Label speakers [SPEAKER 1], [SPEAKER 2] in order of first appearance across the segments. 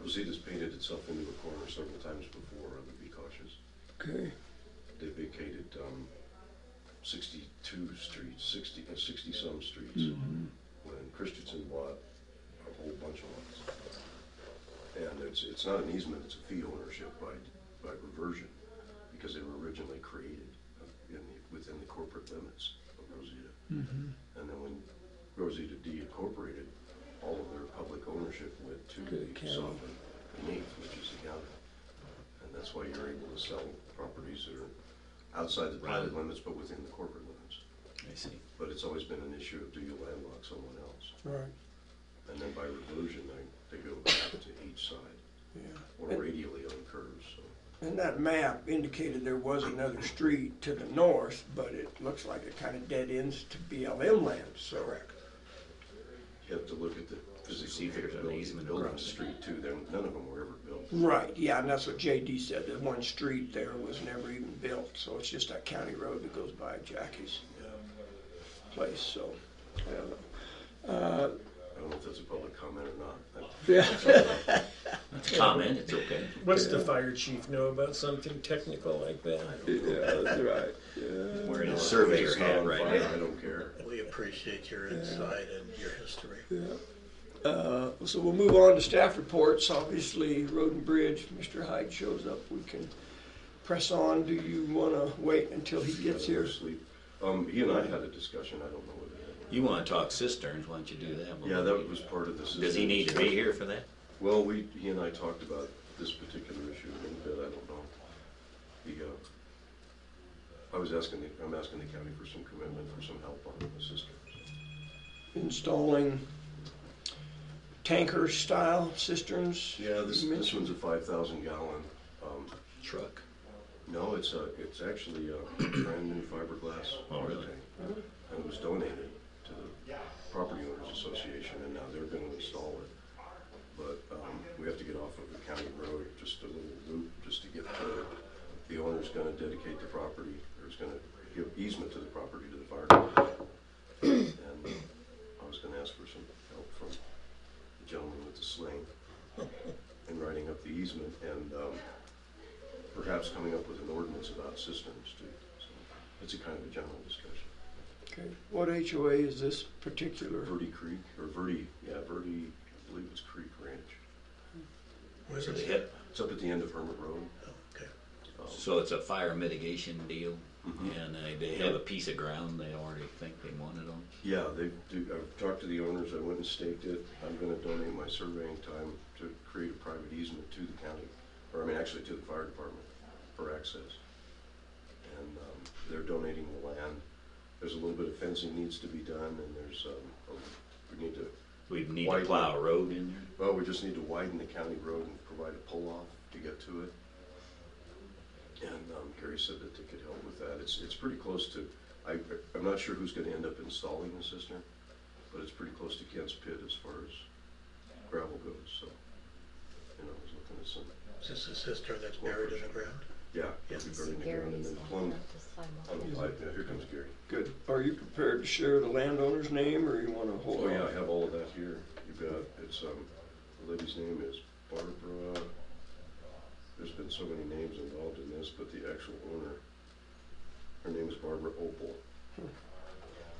[SPEAKER 1] You'll see this painted itself into a corner several times before, I would be cautious.
[SPEAKER 2] Okay,
[SPEAKER 1] They vacated, um, sixty-two streets, sixty, uh, sixty-some streets. When Christensen bought a whole bunch of lots. And it's, it's not an easement, it's a fee ownership by, by reversion, because they were originally created in the, within the corporate limits of Rosita. And then when Rosita D incorporated, all of their public ownership went to
[SPEAKER 2] To the
[SPEAKER 1] the
[SPEAKER 2] county.
[SPEAKER 1] sovereign beneath, which is the county. And that's why you're able to sell properties that are outside the private limits, but within the corporate limits.
[SPEAKER 3] I see.
[SPEAKER 1] But it's always been an issue of do you landlock someone else?
[SPEAKER 2] all right,
[SPEAKER 1] And then by reversion, they, they go back to each side,
[SPEAKER 2] yeah.
[SPEAKER 1] or
[SPEAKER 2] And-
[SPEAKER 1] radially on curves, so.
[SPEAKER 2] And that map indicated there was another street to the north, but it looks like it kind of dead ends to BLM land, so. Correct.
[SPEAKER 1] You have to look at the physical
[SPEAKER 3] See if there's an
[SPEAKER 1] capability of
[SPEAKER 3] easement
[SPEAKER 1] building the
[SPEAKER 3] across it.
[SPEAKER 1] street too, then none of them were ever built.
[SPEAKER 2] Right, yeah, and that's what JD said, that one street there was never even built, so it's just that county road that goes by Jackie's uh, place, so. I don't know.
[SPEAKER 1] I don't know if that's a public comment or not. I-
[SPEAKER 3] It's a comment, it's okay.
[SPEAKER 4] What's the fire chief know about something technical like that?
[SPEAKER 2] Yeah, that's right, yeah.
[SPEAKER 3] Wearing
[SPEAKER 1] No,
[SPEAKER 3] a
[SPEAKER 1] it's
[SPEAKER 3] surveyor
[SPEAKER 1] just not
[SPEAKER 3] hat
[SPEAKER 1] on
[SPEAKER 3] right
[SPEAKER 1] fire,
[SPEAKER 3] now.
[SPEAKER 1] I don't care.
[SPEAKER 5] We appreciate your insight and your history.
[SPEAKER 2] Uh, So we'll move on to staff reports. Obviously, Road and Bridge, Mr. Hyde shows up, we can press on. Do you want to wait until he gets here?
[SPEAKER 1] Sleep. Um, he and I had a discussion, I don't know whether.
[SPEAKER 3] You wanna talk cisterns, why don't you do that?
[SPEAKER 1] Yeah, that was part of this.
[SPEAKER 3] Does he need to be here for that?
[SPEAKER 1] Well, we, he and I talked about this particular issue a little bit, I don't know. The, uh, I was asking, the- I'm asking the county for some commitment, for some help on the system.
[SPEAKER 2] Installing tanker-style cisterns?
[SPEAKER 1] Yeah, this,
[SPEAKER 2] you
[SPEAKER 1] this
[SPEAKER 2] mentioned?
[SPEAKER 1] one's a five thousand gallon, um,
[SPEAKER 3] Truck.
[SPEAKER 1] no, it's a, it's actually a brand new fiberglass.
[SPEAKER 3] Oh, really?
[SPEAKER 1] tank. And it was donated to the Property Owners Association, and now they're gonna install it. But, um, we have to get off of the county road, just a little loop, just to get to, the owner's gonna dedicate the property, or is gonna give easement to the property to the fire. department. And uh, I was gonna ask for some help from the gentleman with the sling in writing up the easement, and, um, perhaps coming up with an ordinance about cisterns too. So It's a kind of a general discussion.
[SPEAKER 2] Okay. What HOA is this particular?
[SPEAKER 1] Verde Creek, or Verde, yeah, Verde, I believe it's Creek Ranch.
[SPEAKER 5] Where
[SPEAKER 3] So
[SPEAKER 5] is
[SPEAKER 3] they
[SPEAKER 5] it?
[SPEAKER 3] hit-
[SPEAKER 1] It's up at the end of Hermit Road.
[SPEAKER 5] Okay.
[SPEAKER 3] so it's a fire mitigation deal,
[SPEAKER 1] Mhm.
[SPEAKER 3] and they, they have a piece of ground they already think they want it on.
[SPEAKER 1] Yeah, they do, I've talked to the owners, I went and staked it. I'm gonna donate my surveying time to create a private easement to the county, or I mean, actually to the fire department for access. And, um, they're donating the land. There's a little bit of fencing needs to be done, and there's, um, a- we need to
[SPEAKER 3] We need
[SPEAKER 1] Why-
[SPEAKER 3] to plow a road in there.
[SPEAKER 1] Well, we just need to widen the county road and provide a pull-off to get to it. And um, Gary said that they could help with that. It's, it's pretty close to, I, I'm not sure who's gonna end up installing the cistern, but it's pretty close to Kent's Pit as far as gravel goes, so. You know, I was looking at some,
[SPEAKER 5] Is this a cistern that's buried in the ground?
[SPEAKER 1] yeah.
[SPEAKER 5] Yeah.
[SPEAKER 1] it'd be buried
[SPEAKER 6] See
[SPEAKER 1] in the ground and
[SPEAKER 6] Gary's
[SPEAKER 1] then
[SPEAKER 6] on
[SPEAKER 1] plumbed
[SPEAKER 6] the
[SPEAKER 1] on
[SPEAKER 6] sidewalk.
[SPEAKER 1] the pipe. Yeah, here comes Gary.
[SPEAKER 2] Good. Are you prepared to share the landowner's name, or you want to hold
[SPEAKER 1] Oh,
[SPEAKER 2] on?
[SPEAKER 1] yeah, I have all of that here. You bet. It's, um, the lady's name is Barbara. There's been so many names involved in this, but the actual owner, her name is Barbara Opal.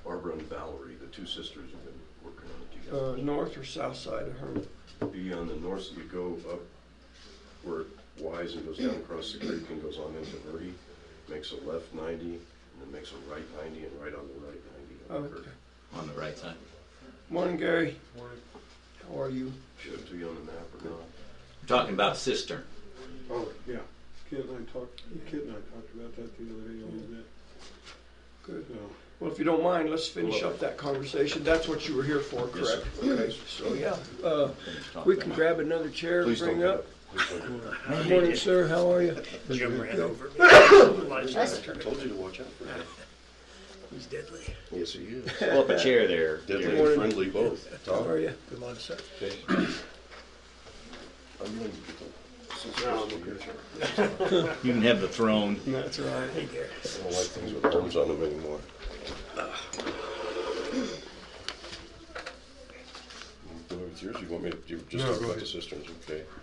[SPEAKER 1] Barbara and Valerie, the two sisters have been working on it
[SPEAKER 2] Uh,
[SPEAKER 1] together.
[SPEAKER 2] north or south side of Herman?
[SPEAKER 1] Be on the north, you go up where it Wise and goes down across the creek and goes on into Verde, makes a left ninety, and then makes a right ninety and right on the right ninety. on the curve.
[SPEAKER 2] Okay.
[SPEAKER 3] On the right side.
[SPEAKER 2] Morning, Gary. Morning. How are you?
[SPEAKER 1] Should it be on the map or not?
[SPEAKER 3] We're talking about cistern.
[SPEAKER 7] Oh, yeah. Kid and I talked, Kid and I talked about that the other day a little bit,
[SPEAKER 2] Good.
[SPEAKER 7] so.
[SPEAKER 2] Well, if you don't mind, let's finish up that conversation. That's what you were here for,
[SPEAKER 1] Yes, sir.
[SPEAKER 2] correct? Okay, so yeah, uh,
[SPEAKER 3] Talk
[SPEAKER 2] we
[SPEAKER 3] about-
[SPEAKER 2] can grab another chair,
[SPEAKER 1] Please don't
[SPEAKER 2] bring
[SPEAKER 1] get
[SPEAKER 2] up.
[SPEAKER 1] Please don't get up.
[SPEAKER 2] Good Morning, sir, how are you?
[SPEAKER 5] Jim ran over me.
[SPEAKER 6] That's
[SPEAKER 1] Told you to watch out for him.
[SPEAKER 5] He's deadly.
[SPEAKER 1] Yes, he is.
[SPEAKER 3] Pull up a chair there.
[SPEAKER 1] Deadly
[SPEAKER 3] Gary.
[SPEAKER 1] and friendly both.
[SPEAKER 2] How are you?
[SPEAKER 5] Come on, sir.
[SPEAKER 1] I'm going to get the- since it's supposed to be here,
[SPEAKER 3] You can have the throne.
[SPEAKER 2] That's right.
[SPEAKER 1] I don't like things with arms on them anymore. You go with yours, you want me to, you just
[SPEAKER 7] No,
[SPEAKER 1] talk
[SPEAKER 7] go
[SPEAKER 1] about
[SPEAKER 7] ahead.
[SPEAKER 1] the cisterns, okay?